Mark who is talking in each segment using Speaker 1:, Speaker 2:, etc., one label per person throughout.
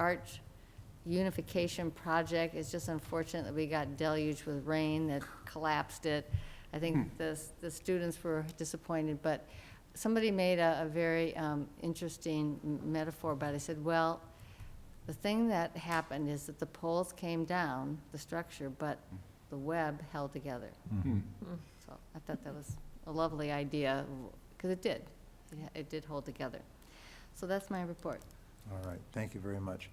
Speaker 1: Arch Unification Project. It's just unfortunate that we got deluged with rain that collapsed it. I think the, the students were disappointed, but somebody made a, a very um, interesting m- metaphor about it. They said, well, the thing that happened is that the poles came down, the structure, but the web held together. So I thought that was a lovely idea, because it did. It- It did hold together. So that's my report.
Speaker 2: All right, thank you very much.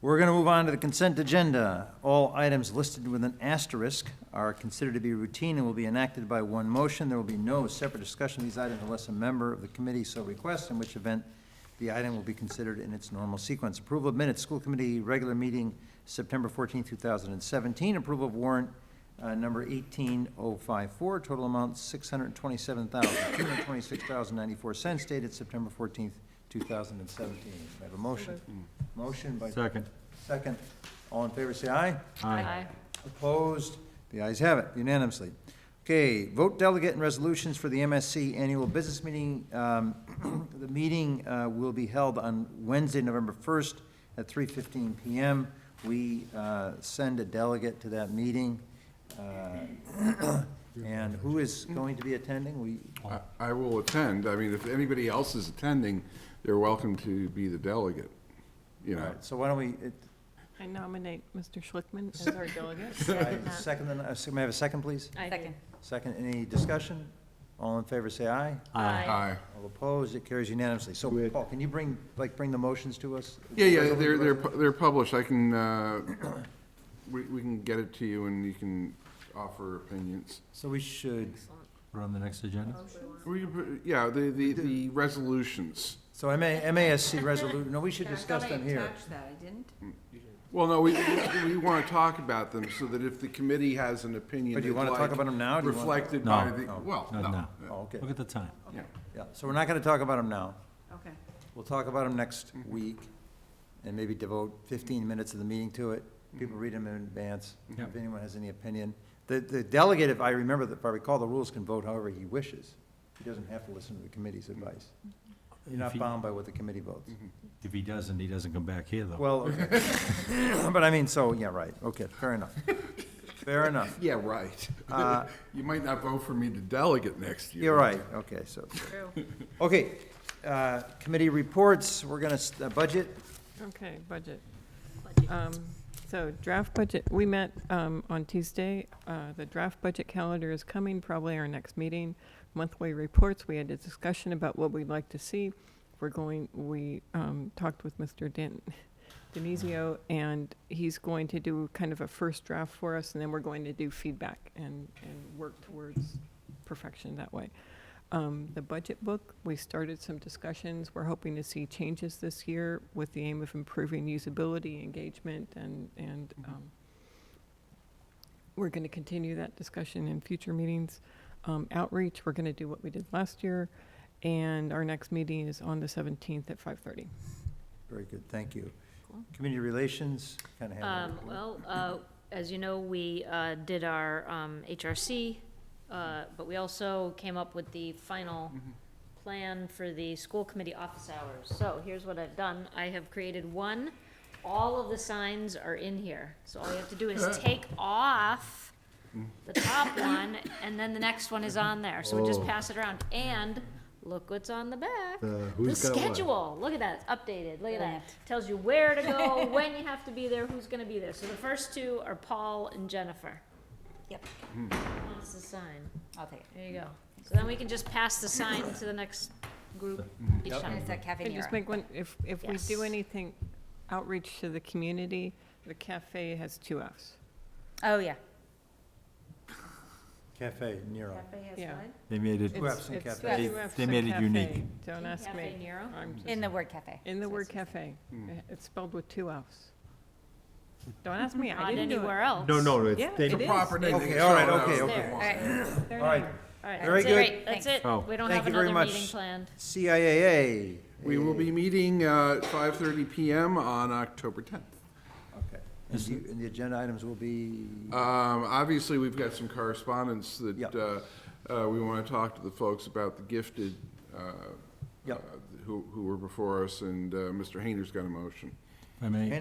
Speaker 2: We're going to move on to the consent agenda. All items listed with an asterisk are considered to be routine and will be enacted by one motion. There will be no separate discussion of these items unless a member of the committee so requests, in which event the item will be considered in its normal sequence. Approval of minutes, school committee regular meeting, September 14, 2017. Approval of warrant uh, number 18054, total amount $627,226.94, dated September 14, 2017. I have a motion. Motion by.
Speaker 3: Second.
Speaker 2: Second. All in favor, say aye.
Speaker 3: Aye.
Speaker 2: Opposed? The ayes have it unanimously. Okay, vote delegate and resolutions for the MSC Annual Business Meeting. Um, The meeting uh, will be held on Wednesday, November 1st at 3:15 PM. We uh, send a delegate to that meeting. Uh, And who is going to be attending? We,
Speaker 4: I- I will attend. I mean, if anybody else is attending, they're welcome to be the delegate, you know.
Speaker 2: so why don't we, it-
Speaker 5: I nominate Mr. Schlickman as our delegate.
Speaker 2: I second, the- uh, may I have a second, please?
Speaker 5: Second.
Speaker 2: Second, any discussion? All in favor, say aye.
Speaker 4: Aye.
Speaker 2: All opposed, it carries unanimously. So,
Speaker 3: With-
Speaker 2: Paul, can you bring, like, bring the motions to us?
Speaker 4: Yeah, yeah, they're, they're, pu- they're published. I can, uh, we, we can get it to you and you can offer opinions.
Speaker 2: So we should,
Speaker 3: We're on the next agenda?
Speaker 4: We can put- Yeah, the, the, the resolutions.
Speaker 2: so MA, MASC resolution, no, we should discuss them here.
Speaker 1: that, I didn't.
Speaker 4: Well, no, we, we want to talk about them so that if the committee has an opinion.
Speaker 2: But Oh, do you
Speaker 4: they'd
Speaker 2: wanna talk
Speaker 4: like
Speaker 2: about 'em now? Do you wanna-
Speaker 4: Reflected
Speaker 3: No.
Speaker 4: by the,
Speaker 2: No.
Speaker 4: well,
Speaker 3: No, no.
Speaker 4: no.
Speaker 2: Oh, okay,
Speaker 3: Look at the time.
Speaker 4: Yeah.
Speaker 2: yeah, so we're not gonna talk about them now.
Speaker 5: Okay.
Speaker 2: We'll talk about them next week, and maybe devote fifteen minutes of the meeting to it. People read them in advance, if
Speaker 3: Yep.
Speaker 2: anyone has any opinion. The, the delegate, if I remember, the- if I recall, the rules can vote however he wishes. He doesn't have to listen to the committee's advice. You're
Speaker 3: If
Speaker 2: not
Speaker 3: he-
Speaker 2: bound by what the committee votes.
Speaker 3: If he doesn't, he doesn't come back here, though.
Speaker 2: Well, okay. but I mean, so, yeah, right, okay, fair enough. Fair enough.
Speaker 4: Yeah, right.
Speaker 2: Uh,
Speaker 4: You might not vote for me to delegate next year.
Speaker 2: You're right, okay, so. Okay, uh, committee reports, we're gonna, s- uh, budget,
Speaker 5: Okay, budget. Um, So draft budget, we met um, on Tuesday. Uh, The draft budget calendar is coming, probably our next meeting. Monthly reports, we had a discussion about what we'd like to see. We're going, we um, talked with Mr. Dan- Denizio, and he's going to do kind of a first draft for us, and then we're going to do feedback and, and work towards perfection that way. Um, The budget book, we started some discussions. We're hoping to see changes this year with the aim of improving usability, engagement, and, and
Speaker 3: Mm-hmm.
Speaker 5: um, we're going to continue that discussion in future meetings. Um, Outreach, we're going to do what we did last year, and our next meeting is on the 17th at 5:30.
Speaker 2: very good, thank you.
Speaker 6: Cool.
Speaker 2: Community relations, kinda have.
Speaker 6: Um, Well, uh, as you know, we uh, did our um, HRC, uh, but we also came up with the final plan for the school committee office hours. So here's what I've done. I have created one. All of the signs are in here. So all you have to do is take off the top one, and then the next one is on there. So we
Speaker 2: Oh.
Speaker 6: just pass it around. And look what's on the back. The schedule. Look at that. It's updated. Look at that. Tells you where to go, when you have to be there, who's going to be there. So the first two are Paul and Jennifer.
Speaker 7: Yep.
Speaker 2: Hmm.
Speaker 6: Wants the sign.
Speaker 7: I'll take it.
Speaker 6: There you go. So then we can just pass the sign to the next group each time.
Speaker 7: It's a cafe
Speaker 5: Can I just make one, if, if we do
Speaker 6: Yes.
Speaker 5: anything outreach to the community, the cafe has two Fs.
Speaker 7: Oh, yeah.
Speaker 2: Cafe Nero.
Speaker 5: Yeah.
Speaker 3: They made it,
Speaker 2: Two Fs in
Speaker 5: It's- it's
Speaker 2: cafe.
Speaker 5: two Fs
Speaker 3: They
Speaker 5: in
Speaker 3: made it unique.
Speaker 5: cafe. Don't ask
Speaker 6: Cafe
Speaker 5: me.
Speaker 6: Nero.
Speaker 5: I'm just-
Speaker 7: In the word cafe.
Speaker 5: In the
Speaker 7: So
Speaker 5: word
Speaker 7: it's just-
Speaker 5: cafe. It's spelled with two Fs. Don't ask me, I
Speaker 6: Not
Speaker 5: didn't do
Speaker 6: anywhere else.
Speaker 5: Yeah, it is.
Speaker 4: Proper name.
Speaker 2: Okay, all right, okay,
Speaker 6: There.
Speaker 2: okay.
Speaker 7: All right.
Speaker 2: All right,
Speaker 6: All
Speaker 2: Very
Speaker 6: right, that's it.
Speaker 2: good.
Speaker 6: That's
Speaker 7: Thanks.
Speaker 6: it.
Speaker 3: Oh.
Speaker 6: We don't
Speaker 2: Thank you
Speaker 6: have
Speaker 2: very
Speaker 6: another meeting
Speaker 2: much.
Speaker 6: planned.
Speaker 2: CIAA.
Speaker 4: We will be meeting uh, at 5:30 PM on October 10th.
Speaker 2: Okay, and you, and the agenda items will be,
Speaker 4: Um, Obviously, we've got some correspondence
Speaker 2: Yep.
Speaker 4: that uh, uh, we want to talk to the folks about the gifted uh,
Speaker 2: Yep.
Speaker 4: uh, who who were before us, and uh, Mr. Hayner's got a motion.
Speaker 3: if I may.